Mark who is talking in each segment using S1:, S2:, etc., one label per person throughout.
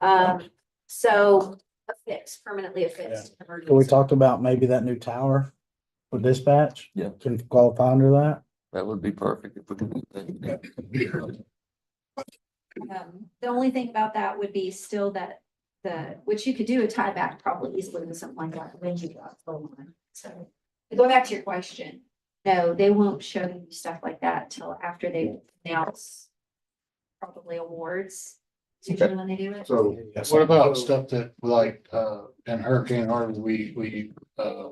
S1: Um, so affixed, permanently affixed.
S2: So we talked about maybe that new tower for dispatch.
S3: Yeah.
S2: Can qualify under that.
S3: That would be perfect if we could. do that.
S1: Um, The only thing about that would be still that the, which you could do a tie back probably easily with something like that when you got the line. So to go back to your question, no, they won't show you stuff like that till after they announce probably awards. It's usually when they do it.
S4: So
S2: Yes.
S4: what about stuff that like, uh, in Hurricane Harvey, we, we, uh,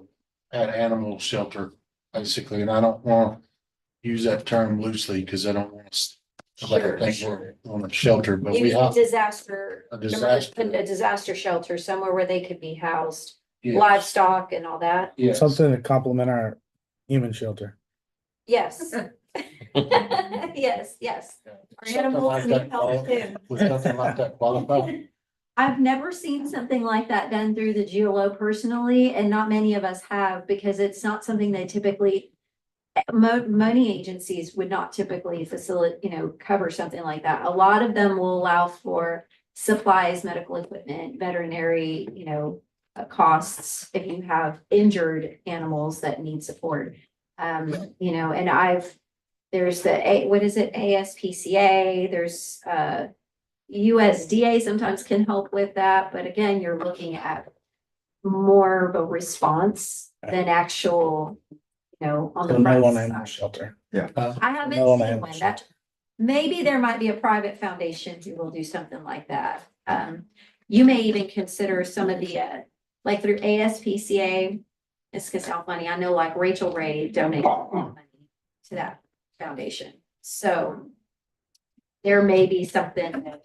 S4: had animal shelter basically, and I don't want to use that term loosely because I don't want to like
S1: Sure,
S4: think
S1: sure.
S4: we're on a shelter, but
S1: You
S4: we
S1: mean
S4: have.
S1: disaster.
S4: A disaster.
S1: A disaster shelter somewhere where they could be housed,
S4: yeah,
S1: livestock and all that.
S4: yeah.
S2: Something to complement our human shelter.
S1: Yes. Yes, yes.
S4: Yeah.
S1: Our
S4: Something
S1: animals
S4: like
S1: need
S4: that
S1: help
S4: quali-
S1: too.
S4: Would something like that qualify?
S1: I've never seen something like that done through the GLO personally, and not many of us have, because it's not something they typically. Mo- money agencies would not typically facilitate, you know, cover something like that. A lot of them will allow for supplies, medical equipment, veterinary, you know. uh, costs if you have injured animals that need support. Um, you know, and I've, there's the, A- what is it, ASPCA, there's, uh. USDA sometimes can help with that, but again, you're looking at more of a response than actual, you know, on
S2: So
S1: the
S2: No
S1: front
S2: one animal
S1: side.
S2: shelter.
S1: I haven't
S2: No,
S1: seen
S2: ma'am.
S1: one that, maybe there might be a private foundation who will do something like that. Um, you may even consider some of the, uh, like through ASPCA, it's because how funny, I know like Rachel Ray donated money to that foundation, so there may be something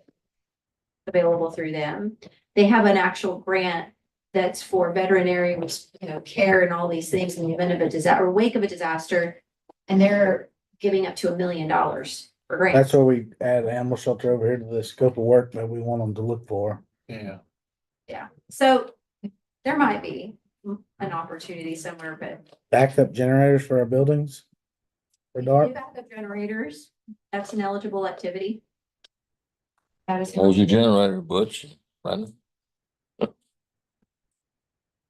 S1: available through them. They have an actual grant that's for veterinary, you know, care and all these things in the event of a disaster, or wake of a disaster. And they're giving up to a million dollars for grants.
S2: That's where we add animal shelter over here to the scope of work that we want them to look for.
S4: Yeah,
S1: So there might be an opportunity somewhere, but
S2: Backup generators for our buildings. For dark.
S1: do backup generators, that's an eligible activity. That is.
S3: There's your generator, Butch. Right?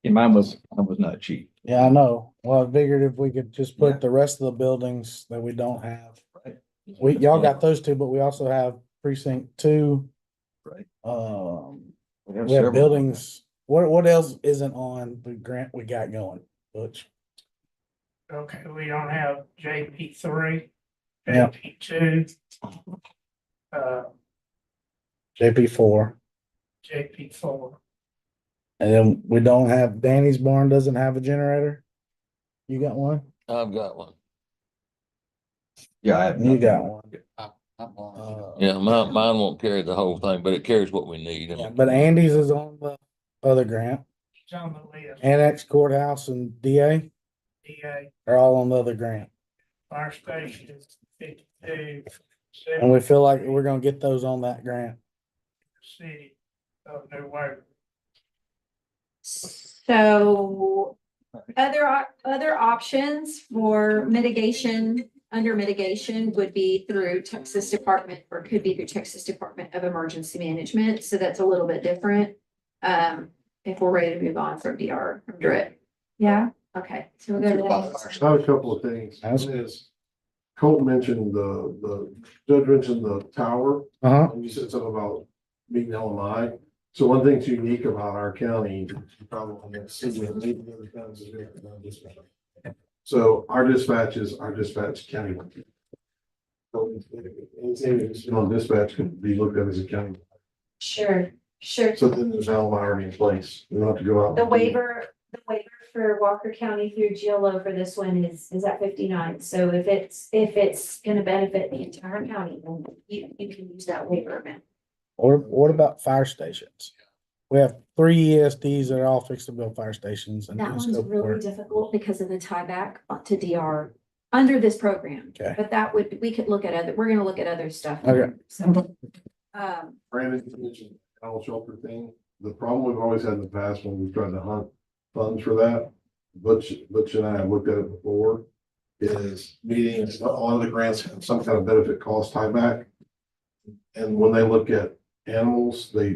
S5: Yeah, mine was, mine was not cheap.
S2: Yeah, I know. Well, I figured if we could just put the rest of the buildings that we don't have.
S5: Right.
S2: We, y'all got those two, but we also have precinct two.
S5: Right.
S2: Um,
S3: We have
S2: we have
S3: several.
S2: buildings. What, what else isn't on the grant we got going, Butch?
S6: Okay, we don't have JP three,
S2: Yeah.
S6: JP two. Uh,
S2: JP four.
S6: JP four,
S2: And then we don't have, Danny's barn doesn't have a generator. You got one?
S3: I've got one.
S5: Yeah, I have.
S2: You
S5: nothing.
S2: got one.
S4: I'm on.
S2: Uh,
S3: Yeah, mine, mine won't carry the whole thing, but it carries what we need.
S2: yeah, But Andy's is on the other grant.
S6: it's on the list,
S2: Annex courthouse and DA
S6: DA,
S2: are all on the other grant.
S6: fire station is fifty-two.
S2: And we feel like we're gonna get those on that grant.
S6: City of New Wave.
S1: So other, op- other options for mitigation, under mitigation would be through Texas Department or could be through Texas Department of Emergency Management. So that's a little bit different. Um, if we're ready to move on from DR, from DRIP. Yeah, okay. So we'll go to the next.
S7: I have a couple of things.
S2: That's-
S7: One is, Colt mentioned the, the, Judge mentioned the tower,
S2: Uh huh.
S7: and you said something about being LMI. So one thing that's unique about our county, you probably have seen it, maybe other towns is we have no dispatch. So our dispatches, our dispatch county. So Anything that's on dispatch can be looked at as a county.
S1: Sure, sure.
S7: So then there's LMI already in place. You don't have to go out. and
S1: The
S7: do-
S1: waiver, the waiver for Walker County through GLO for this one is, is at fifty-nine, so if it's, if it's gonna benefit the entire county, then you, you can use that waiver amount.
S2: Or what about fire stations? We have three ESDs that are all fixed to build fire stations and.
S1: That
S2: and
S1: one's
S2: scope
S1: really
S2: work.
S1: difficult because of the tieback to DR under this program.
S2: Okay.
S1: But that would, we could look at other, we're gonna look at other stuff.
S2: Okay.
S1: So, Um,
S7: Brandon you mentioned the animal shelter thing, the problem we've always had in the past when we've tried to hunt funds for that, Butch, Butch and I have looked at it before, is meetings, a lot of the grants have some kind of benefit cost tieback. And when they look at animals, they